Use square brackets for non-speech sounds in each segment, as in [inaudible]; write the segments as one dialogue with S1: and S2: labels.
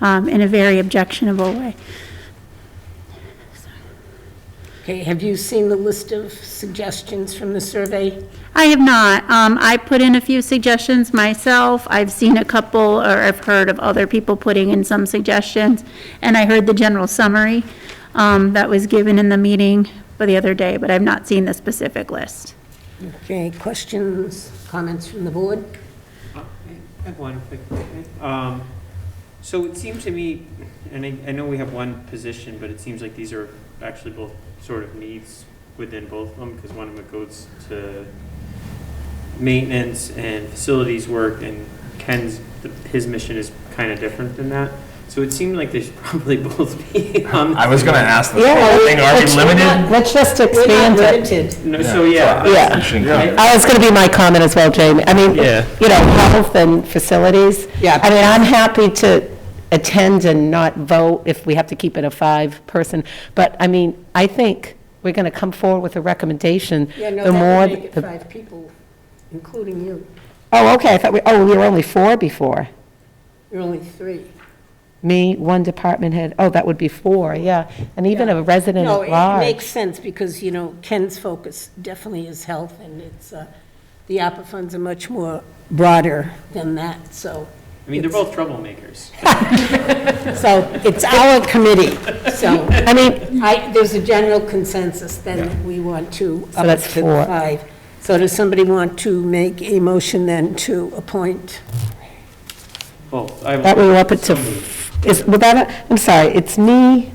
S1: um, in a very objectionable way.
S2: Okay, have you seen the list of suggestions from the survey?
S1: I have not. Um, I put in a few suggestions myself. I've seen a couple, or I've heard of other people putting in some suggestions. And I heard the general summary, um, that was given in the meeting for the other day, but I've not seen the specific list.
S2: Okay, questions, comments from the board?
S3: I have one quick, um, so it seems to me, and I, I know we have one position, but it seems like these are actually both sort of needs within both of them, because one of them goes to maintenance and facilities work, and Ken's, his mission is kind of different than that. So it seemed like they should [laughs] probably both be on.
S4: I was gonna ask the
S5: Yeah,
S4: same thing, are we
S5: let's-
S4: limited?
S5: Let's just
S2: We're not
S5: expand it.
S2: limited.
S3: No, so, yeah.
S5: Yeah.
S4: We shouldn't
S3: Yeah.
S4: keep-
S5: Oh, it's going to be my comment as well, Jamie. I mean,
S3: Yeah.
S5: you know, health and facilities.
S2: Yeah.
S5: I mean, I'm happy to attend and not vote if we have to keep it a five-person, but I mean, I think we're going to come forward with a recommendation.
S2: Yeah, no,
S5: The more
S2: that would make it
S5: the-
S2: five people, including you.
S5: Oh, okay, I thought we, oh, we were only four before.
S2: You're only three.
S5: Me, one department head, oh, that would be four, yeah. And even
S2: Yeah.
S5: a resident
S2: No,
S5: at
S2: it
S5: large.
S2: makes sense because, you know, Ken's focus definitely is health and it's, uh, the ARPA funds are much more broader than that, so,
S3: I mean, they're both troublemakers.
S2: so
S5: It's our committee.
S2: So,
S5: I mean,
S2: I, there's a general consensus then that we want to
S5: So
S2: up it
S5: that's
S2: to
S5: four.
S2: five. So does somebody want to make a motion then to appoint?
S3: Well, I.
S5: that we were up it
S3: So
S5: to,
S3: moved.
S5: is, well, that, I'm sorry, it's me,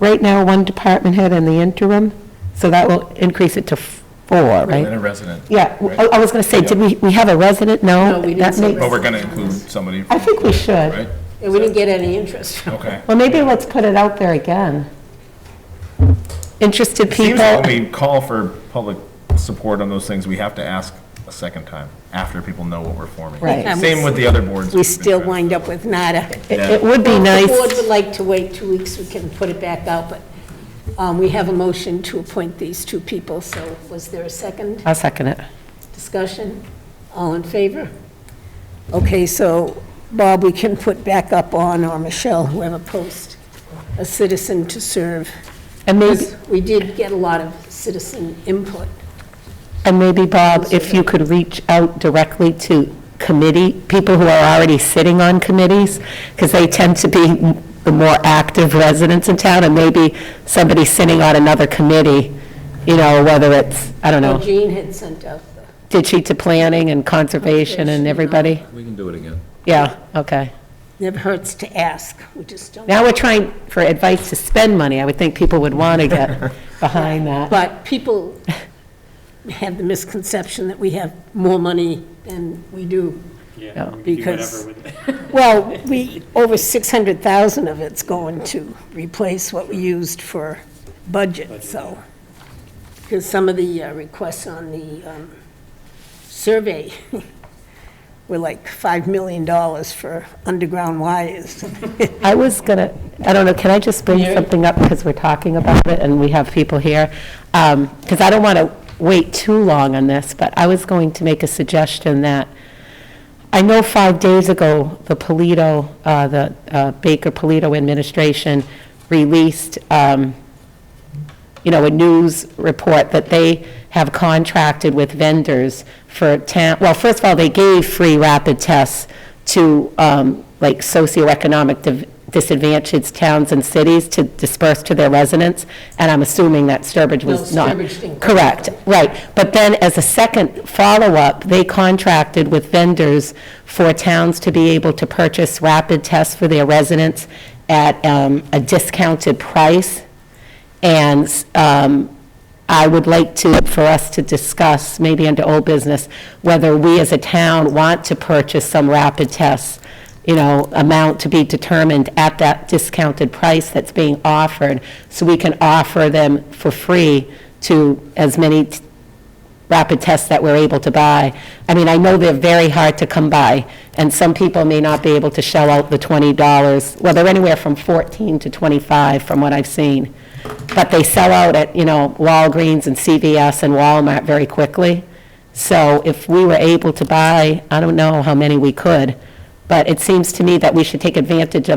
S5: right now, one department head and the interim, so that will increase it to four,
S4: And
S5: right?
S4: a resident,
S5: Yeah, w- I I was going to say, did we, we have a resident? No.
S2: No, we didn't
S5: that
S2: say
S5: may-
S4: but we're gonna include somebody,
S5: I think we should.
S4: right?
S2: And we didn't get any interest from
S4: Okay.
S5: Well, maybe let's put it out there again. Interested
S4: Seems
S5: people.
S4: like when we call for public support on those things, we have to ask a second time, after people know what we're forming.
S5: Right.
S2: And we
S4: Same with the other boards.
S2: We
S4: we've been
S2: still
S4: trying.
S2: wind up with nada.
S5: It
S4: Yeah.
S5: it would be
S2: If
S5: nice.
S2: the board would like to wait two weeks, we can put it back out, but um, we have a motion to appoint these two people, so was there a second
S5: I'll second it.
S2: discussion? All in favor? Okay, so Bob, we can put back up on, or Michelle, whoever post, a citizen to serve.
S5: And maybe,
S2: We did get a lot of citizen input.
S5: and maybe, Bob, if you could reach out directly to committee, people who are already sitting on committees, because they tend to be the more active residents in town, and maybe somebody sitting on another committee, you know, whether it's, I don't know,
S2: Jean had sent out the.
S5: did she to planning and conservation and everybody?
S6: We can do it again.
S5: Yeah, okay.
S2: Never hurts to ask, we just don't.
S5: Now we're trying for advice to spend money. I would think people would want to
S6: [laughs]
S5: get behind that.
S2: But people have the misconception that we have more money than we do.
S3: Yeah, we could do
S2: Because-
S3: whatever with it.
S2: Well, we, over 600,000 of it's going to replace what we used for budget, so. Because some of the uh, requests on the um, survey [laughs] were like $5 million for underground wires. [laughs]
S5: I was gonna, I don't know, can I just bring something up, because we're talking about it, and we have people here? Because I don't want to wait too long on this, but I was going to make a suggestion that, I know five days ago, the Polito, uh, the uh, Baker Polito administration released, um, you know, a news report that they have contracted with vendors for town, well, first of all, they gave free rapid tests to, um, like, socioeconomic div- disadvantaged towns and cities to disperse to their residents, and I'm assuming that Sturbridge was
S2: No,
S5: not.
S2: Sturbridge didn't.
S5: Correct, right. But then, as a second follow-up, they contracted with vendors for towns to be able to purchase rapid tests for their residents at um, a discounted price. And um, I would like to, for us to discuss, maybe under old business, whether we as a town want to purchase some rapid tests, you know, amount to be determined at that discounted price that's being offered, so we can offer them for free to as many t- rapid tests that we're able to buy. I mean, I know they're very hard to come by, and some people may not be able to shell out the $20. Well, they're anywhere from 14 to 25 from what I've seen. But they sell out at, you know, Walgreens and CVS and Walmart very quickly. So if we were able to buy, I don't know how many we could, but it seems to me that we should take advantage of